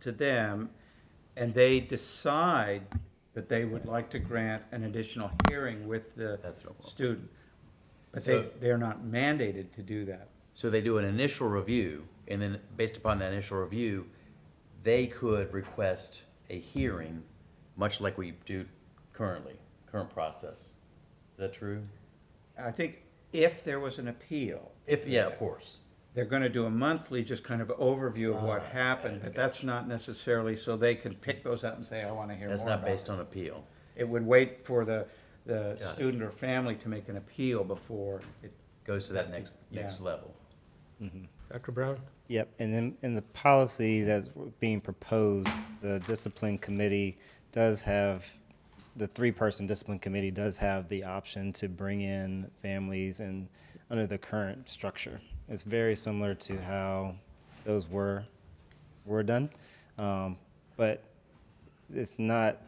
to them, and they decide that they would like to grant an additional hearing with the That's no problem. student. But they, So- they're not mandated to do that. So they do an initial review, and then based upon that initial review, they could request a hearing, much like we do currently, current process. Is that true? I think if there was an appeal, If, yeah, of course. they're gonna do a monthly, just kind of overview of Ah, what happened, but that's not necessarily so they can pick those up and say, I wanna hear more That's about not based this." on appeal. It would wait for the, the Got it. student or family to make an appeal before it, Goes to that next, next Yeah. level. Dr. Brown? Yep, and then in the policy that's being proposed, the discipline committee does have, the three-person discipline committee does have the option to bring in families and, under the current structure. It's very similar to how those were, were done. Um, But it's not,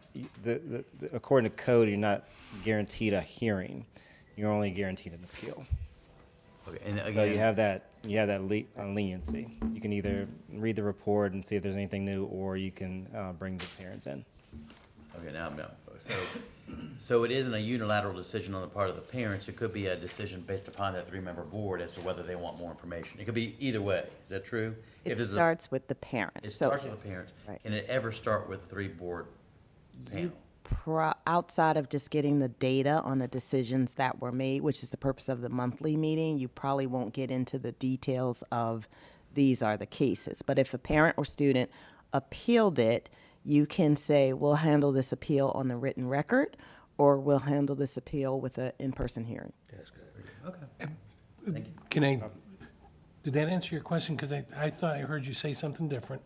the, the, the- according to code, you're not guaranteed a hearing. You're only guaranteed an appeal. Okay, and So you again, have that, you have that le- uh, leniency. You can either read the report and see if there's anything new, or you can uh, bring the parents in. okay, now I'm not, so, so it isn't a unilateral decision on the part of the parents. It could be a decision based upon that three-member board as to whether they want more information. It could be either way. Is that true? If It it's a- starts with the parent. It So starts with the parent. Right. Can it ever start with a three-board panel? Pro, outside of just getting the data on the decisions that were made, which is the purpose of the monthly meeting, you probably won't get into the details of these are the cases. But if a parent or student appealed it, you can say, we'll handle this appeal on the written record, or we'll handle this appeal with an in-person hearing. Can I, did that answer your question? Because I, I thought I heard you say something different.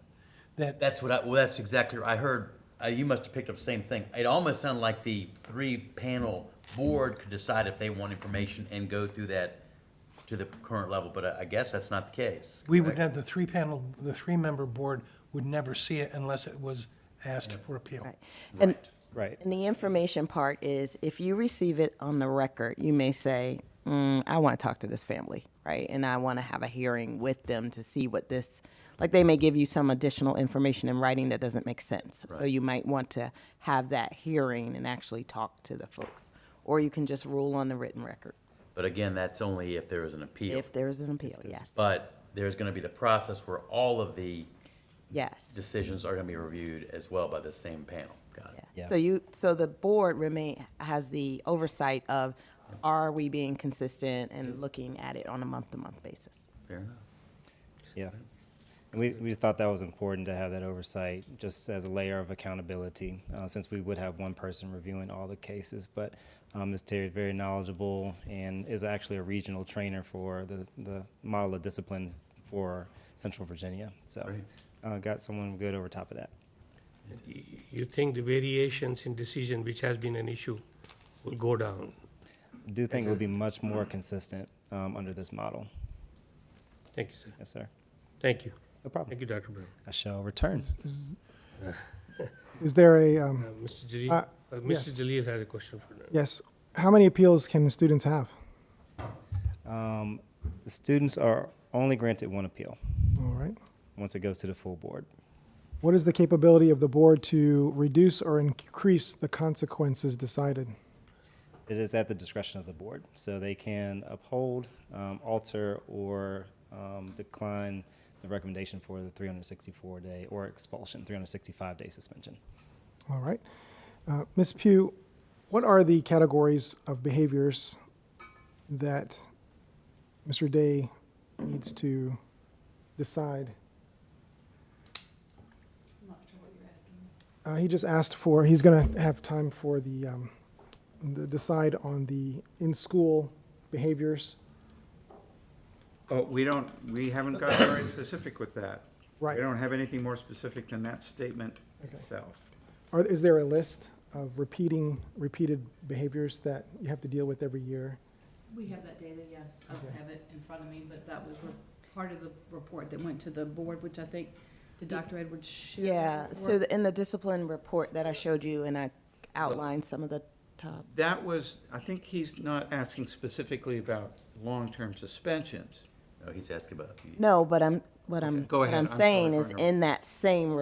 That, That's what I, well, that's exactly, I heard, uh, you must have picked up the same thing. It almost sounded like the three-panel board could decide if they want information and go through that to the current level, but I, I guess that's not the case. we would correct? have, the three panel, the three-member board would never see it unless it was asked for appeal. Right. And, Right. and the information part is if you receive it on the record, you may say, mm, I want to talk to this family, right? And I want to have a hearing with them to see what this, like they may give you some additional information in writing that doesn't make sense. So you might want to have that hearing and actually talk to the folks. Or you can just rule on the written record But again, that's only if there is an appeal. if there is an appeal. Yes. But there's gonna be the process where all of the Yes. decisions are gonna be reviewed as well by the same panel. Got it. Yeah. Yeah. So you, so the board remain, has the oversight of, are we being consistent and looking at it on a month-to-month basis? Fair enough. Yeah. And we, we just thought that was important to have that oversight, just as a layer of accountability, uh, since we would have one person reviewing all the cases. But um, Ms. Terry is very knowledgeable and is actually a regional trainer for the, the model of discipline for Central Virginia. So Great. uh, got someone good over top of that. you think the variations in decision, which has been an issue, will go down. Do think it would be much more consistent um, under this model. Thank you, sir. Yes, sir. Thank you. No problem. Thank you, Dr. Brown. I shall return. Is there a, Uh, um, Mr. Jalil, Uh, uh, yes. Mr. Jalil had a question for you. yes, how many appeals can students have? Um, the students are only granted one appeal All right. once it goes to the full board. What is the capability of the board to reduce or increase the consequences decided? It is at the discretion of the board, so they can uphold, um, alter, or um, decline the recommendation for the 364 day or expulsion, 365 day suspension. All right. Uh, Ms. Pugh, what are the categories of behaviors that Mr. Day needs to decide? I'm not sure what you're asking. Uh, he just asked for, he's going to have time for the, um, the decide on the in-school behaviors. oh, we don't, we haven't got very specific with that. Right. We don't have anything more specific than that statement Okay. itself. Are, is there a list of repeating, repeated behaviors that you have to deal with every year? We have that data, yes. I don't Okay. have it in front of me, but that was re- part of the report that went to the board, which I think, did Dr. Edwards share? that Yeah, so report? the- in the discipline report that I showed you, and I outlined some of the top, That was, I think he's not asking specifically about long-term suspensions. No, he's asking about. no, but I'm, what I'm, Go what ahead, I'm I'm sorry saying for is interrupting. in that same